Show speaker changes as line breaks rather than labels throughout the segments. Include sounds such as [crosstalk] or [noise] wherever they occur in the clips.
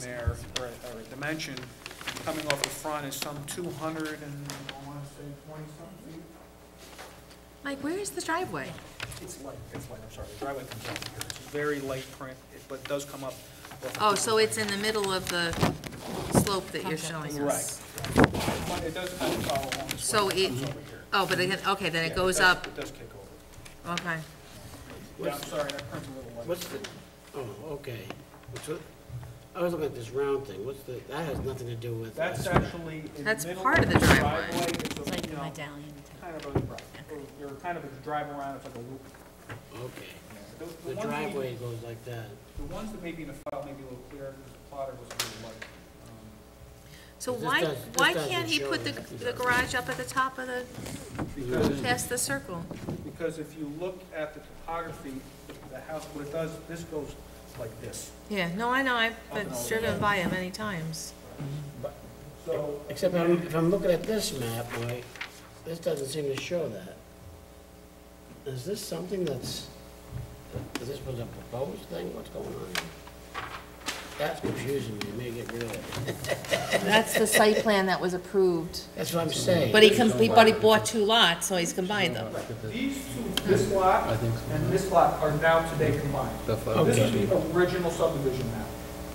there, or a- or a dimension, coming off the front is some 200 and, I want to say 20-something feet.
Mike, where is the driveway?
It's light, it's light, I'm sorry, the driveway comes up here, it's very light print, it- but it does come up. off of-
Oh, so it's in the middle of the slope that you're showing
Right.
us?
But It does kind of follow along this way.
So it-
comes over here.
Oh, but again, okay,
Yeah,
then it goes
does-
up,
It does kick over.
okay.
Yeah, I'm sorry, that print's a little light.
What's the, oh, okay. What's the- I was looking at this round thing, what's the, that has nothing to do with.
That's
us.
actually in the middle.
That's part of the driveway.
It's a, you know, kind of a, right, or or kind of a drive around, it's like a loop.
Okay.
The-
The
ones we-
driveway goes like that.
The ones that may be in the file may be a little clearer, because the plotter was a little light. Um,
So
This
why,
does- this
why
doesn't
can't he
show
put the,
that.
the garage up at the top of the,
Because,
past the circle?
Um, because if you look at the topography, the- the house, what it does, this goes like this.
Yeah, no, I know, I've
been
been driven by it many times.
So,
Except I'm, if I'm looking at this map, boy, this doesn't seem to show that. Is this something that's, is this was a proposed thing, what's going on? That's confusing me, maybe get rid of it.
That's the site plan that was approved.
That's what I'm saying.
But he, com- he- but he bought two lots, so he's combined them.
these two, this lot and this lot are now today combined. This is the original subdivision map.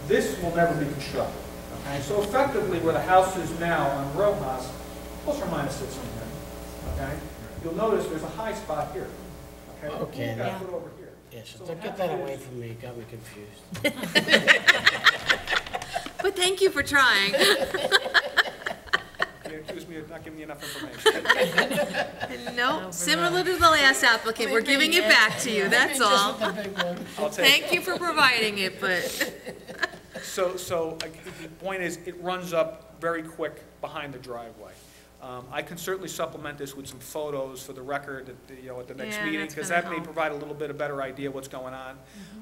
This will never be constructed. Okay, so effectively, where the house is now on Rojas, plus or minus six in there, okay? You'll notice there's a high spot here, okay?
Okay.
We've got to put over here.
Yes, get that away from me, it got me confused.
But thank you for trying. [laughs]
You accuse me of not giving you enough information.
No, similar to the last applicant, we're giving it back to you, that's all.
I'll take it.
Thank you for providing it, but,
So, so I- the point is, it runs up very quick behind the driveway. Um, I can certainly supplement this with some photos for the record, at the, you know, at the next
Yeah,
meeting,
that's
because
gonna
that may
help. Mm-hmm.
provide a little bit of better idea what's going on.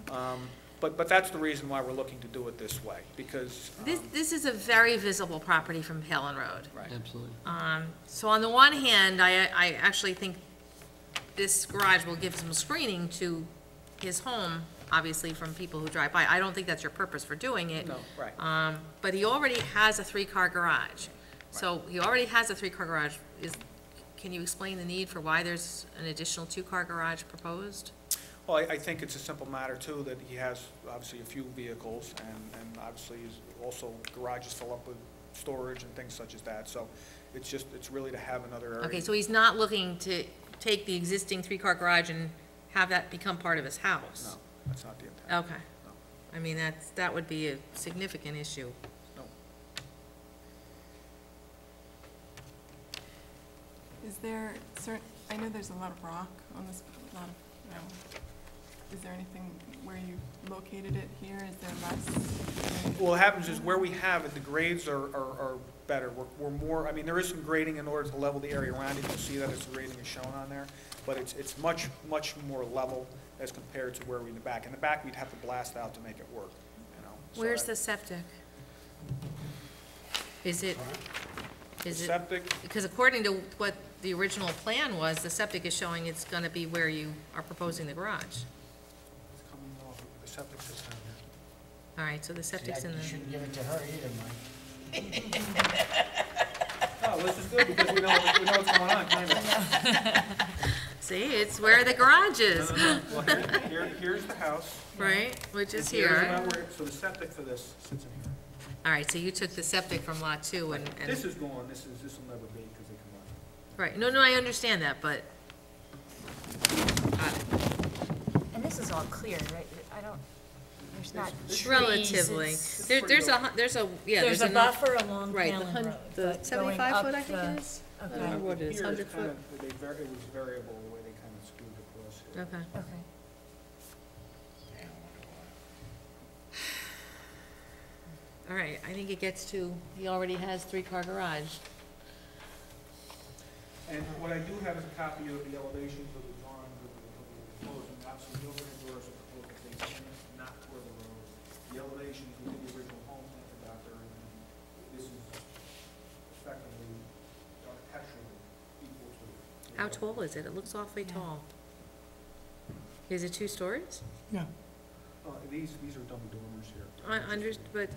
Um, But, but that's the reason why we're looking to do it this way, because, um,
this, this is a very visible property from Palin Road.
right.
Absolutely.
So on the one hand, I, I actually think this garage will give some screening to his home, obviously from people who drive by. I don't think that's your purpose for doing it.
No, right.
Um, but he already has a three-car garage. So he already has a three-car garage. Is, can you explain the need for why there's an additional two-car garage proposed?
Well, I, I think it's a simple matter too, that he has obviously a few vehicles and, and obviously is also garages fill up with storage and things such as that. So it's just, it's really to have another area.
Okay, so he's not looking to take the existing three-car garage and have that become part of his
No,
house?
that's not the intent.
Okay. I mean, that's, that would be a significant issue.
Is there cer I know there's a lot of rock on this, a lot of, no. Is there anything where you located it here? Is there less?
What happens is where we have it, the grades are, are, are better. We're, we're more, I mean, there is some grading in order to level the area around it. You'll see that it's grading is shown on there. But it's, it's much, much more level as compared to where we in the back. In the back, we'd have to blast out to make it work, you know? so
Where's the
that-
septic? Is it, is it,
Septic,
because according to what the original plan was, the septic is showing it's gonna be where you are proposing the garage.
it's coming off, the septic system here.
All right, so the septic's in
You
the,
shouldn't give it to her either, Mike.
No, let's just do it because we know, we know what's going on, kind
[laughs]
of.
see, it's where the garage is, [laughs]
Well, here- here, here's the house.
right, which is
Here's
here.
about where- So the septic for this sits in here.
All right, so you took the septic from lot two and,
This
and,
is gone, this is, this will never be because they combined.
right, no, no, I understand that, but. Got it.
And this is all clear, right? I don't, there's not trees.
Relatively,
it's-
there, there's a, hu- there's a, yeah,
There's a
enough-
buffer along
Right, the
Callan
hun-
Road.
the
but going
75
up
foot, I think it
the-
is.
And
Okay,
Uh, what it is,
here
100
kind of- They, var- it was variable the way they kind of screwed across here.
Okay.
okay.
All right, I think it gets to, he already has three-car garage.
And what I do have is a copy of the elevations of the drawings of the, of the proposed, and obviously Gilbert and Doris are proposed that they change not toward the road. The elevations within the original home plan for Dr., and then this is effectively architecturally equal to. the-
How tall is it? It looks awfully tall. Is it two stories?
Uh, these, these are double dormers here.
I under, but